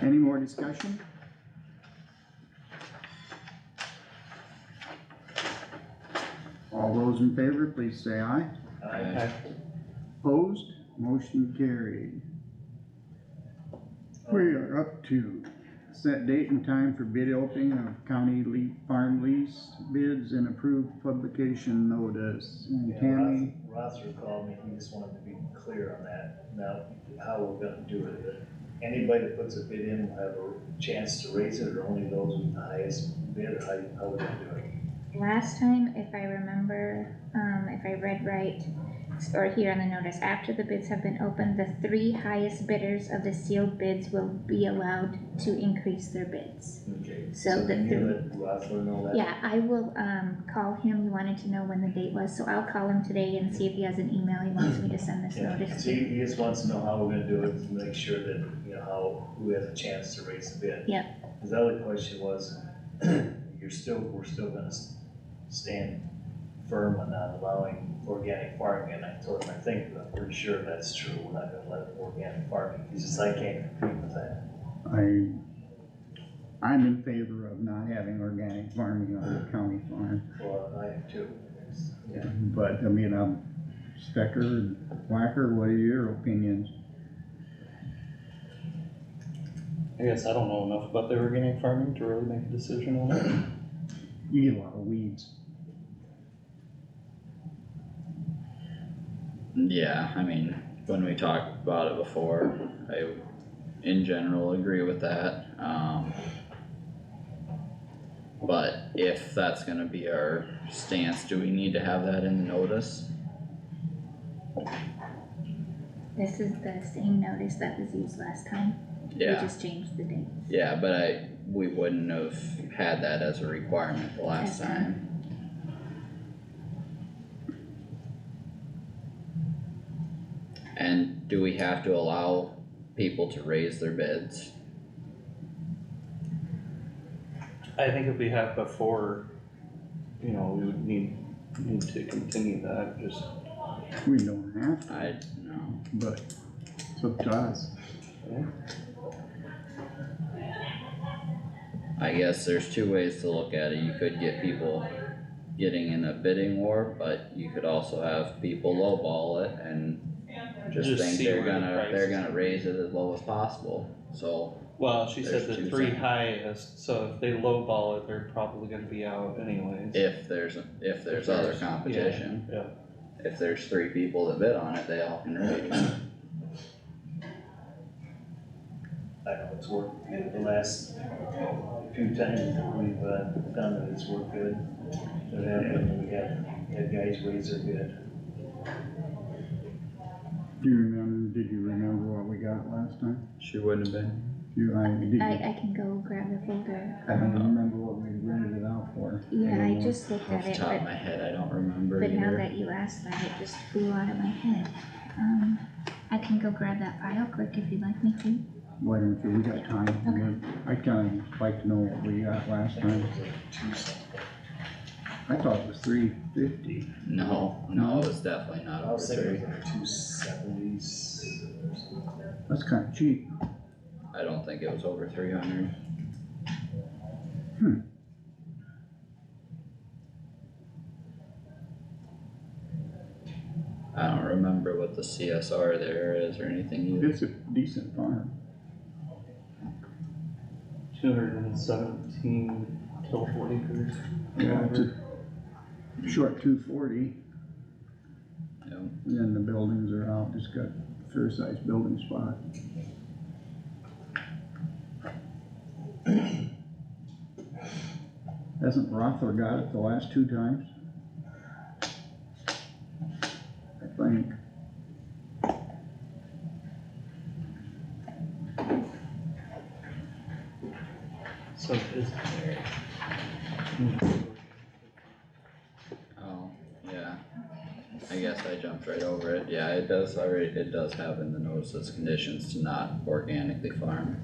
Any more discussion? All those in favor, please say aye. Aye. Opposed, motion carried. We are up to set date and time for bid opening of county lea- farm lease bids and approved publication notice. And Yeah, Tammy, Ross Rosser called me, he just wanted to be clear on that, now, how we're gonna do it. But Anybody that puts a bid in will have a chance to raise it, or only those with the highest bid, or how, you- how we're gonna do it. Last time, if I remember, um, if I read right, or here on the notice, after the bids have been opened, the three highest bidders of the sealed bids will be allowed to increase their bids. Okay. So the you three- let Rosser know that? Yeah, I will, um, call him, you wanted to know when the date was, so I'll call him today and see if he has an email he wants me to send this Yeah, notice so he, to. he just wants to know how we're gonna do it, to make sure that, you know, how, who has a chance to raise the bid. Yep. His other question was, you're still, we're still gonna s- stand firm on not allowing organic farming, and I told him, I think, I'm pretty sure that's true, we're not gonna let organic farming, he's just, I can't compete with that. I, I'm in favor of not having organic farming on the county farm, Well, I am too. It's- but I mean, I'm Stecker, Whacker, what are your opinions? I guess I don't know enough about the organic farming to really make a decision on it. You get a lot of weeds. Yeah, I mean, when we talked about it before, I in general agree with that, um. But if that's gonna be our stance, do we need to have that in the notice? This is the same notice that was used last time, we Yeah, just changed the date. yeah, but I, we wouldn't have had that as a requirement the last Okay. time. And do we have to allow people to raise their bids? I think if we have before, you know, we would need, need to continue that, just. We don't have to, I, no. but it's up to us. I guess there's two ways to look at it. You could get people getting in a bidding war, but you could also have people lowball it and just Just think see they're where the gonna, price is. they're gonna raise it as low as possible, so. Well, she said There's two the three sides. highest, so if they lowball it, they're probably gonna be out anyways. If there's, if there's other competition, Yeah, if there's three people that bid on it, they all can raise. I know it's worked, good the last few times that we've, uh, done it, it's worked good. It happened, we had, had guys raise their bid. Do you remember, did you remember what we got last time? She wouldn't have been. You, I, did you, I, I can go grab the folder. I Uh-huh. don't remember what we rented it out for. Yeah, I anymore. just looked Off at the it, top but of my head, I don't remember But now either. that you asked that, it just flew out of my head. Um, I can go grab that file quick if you'd like me to. Why don't you, we got time, I'd kinda like to know what we got last time. I thought it was three fifty. No, no, it was definitely not I over was thinking three. it was like two seventies. That's kinda cheap. I don't think it was over three hundred. I don't remember what the CSR there is or anything either. It's a decent farm. two hundred and seventeen total acres. Yeah, it's a short two forty, No. and then the buildings are out, just got fair sized building spot. Hasn't Rothler got it the last two times? I think. So is there? Oh, yeah. I guess I jumped right over it. Yeah, it does already, it does have in the notices conditions to not organically farm.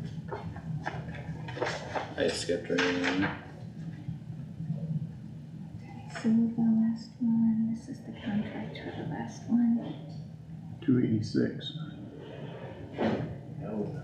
I skipped right over it. So the last one, this is the contract for the last one. Two eighty-six. No,